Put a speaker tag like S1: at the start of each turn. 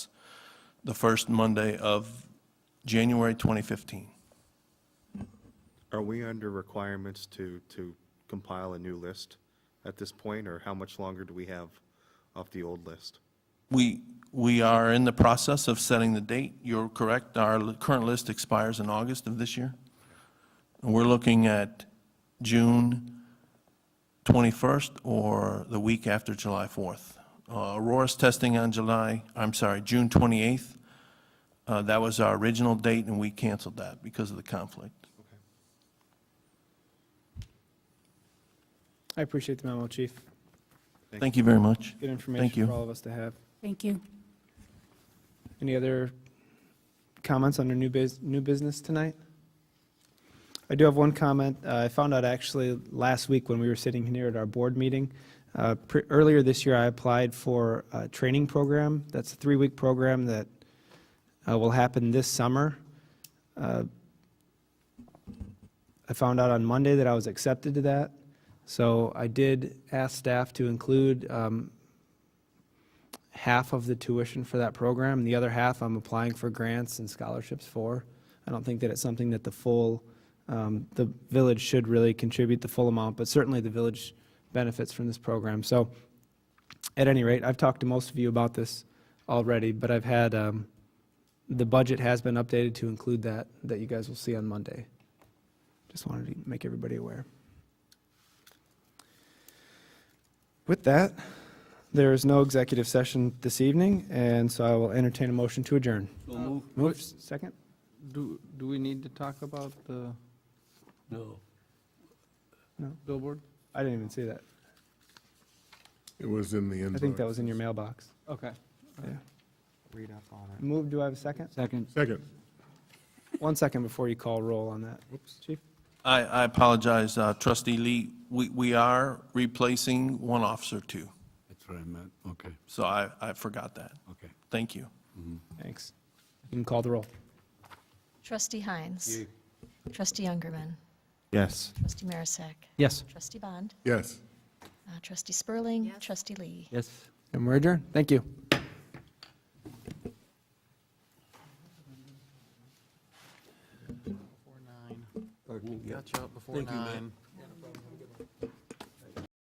S1: the first Monday of January 2015.
S2: Are we under requirements to, to compile a new list at this point, or how much longer do we have off the old list?
S1: We, we are in the process of setting the date. You're correct. Our li- current list expires in August of this year. And we're looking at June 21st or the week after July 4th. Uh, Aurora's testing on July, I'm sorry, June 28th. Uh, That was our original date, and we canceled that because of the conflict.
S3: I appreciate the memo, Chief.
S1: Thank you very much.
S3: Good
S1: Thank
S3: information
S1: you.
S3: for all of us to have.
S4: Thank you.
S3: Any other comments under new biz, new business tonight? I do have one comment. Uh, I found out actually last week when we were sitting here at our board meeting. uh, pre- Earlier this year, I applied for a training program. That's a three-week program that uh, will happen this summer. Uh, I found out on Monday that I was accepted to that. So I did ask staff to include um, half of the tuition for that program. The other half I'm applying for grants and scholarships for. I don't think that it's something that the full, um, the village should really contribute the full amount, but certainly the village benefits from this program. So at any rate, I've talked to most of you about this already, but I've had, um, the budget has been updated to include that, that you guys will see on Monday. Just wanted to make everybody aware. With that, there is no executive session this evening, and so I will entertain a motion to adjourn.
S5: So move,
S3: Move, second?
S5: do, do we need to talk about the? No.
S3: No.
S5: Billboard?
S3: I didn't even see that.
S6: It was in the end
S3: I think that was in your mailbox.
S5: Okay.
S3: Yeah.
S2: Read up on it.
S3: Move, do I have a second?
S5: Second.
S6: Second.
S3: One second before you call roll on that. Chief?
S1: I, I apologize, uh, trustee Lee. We, we are replacing one officer, too.
S7: That's what I meant, okay,
S1: So I, I forgot that.
S7: okay.
S1: Thank you.
S3: Thanks. You can call the roll.
S8: Trustee Heinz. Trustee Youngerman.
S2: Yes.
S8: Trustee Marisak.
S3: Yes.
S8: Trustee Bond.
S6: Yes.
S8: uh, Trustee Spurling. Trustee Lee.
S5: Yes.
S3: And we're adjourned. Thank you.
S5: Catch up before nine.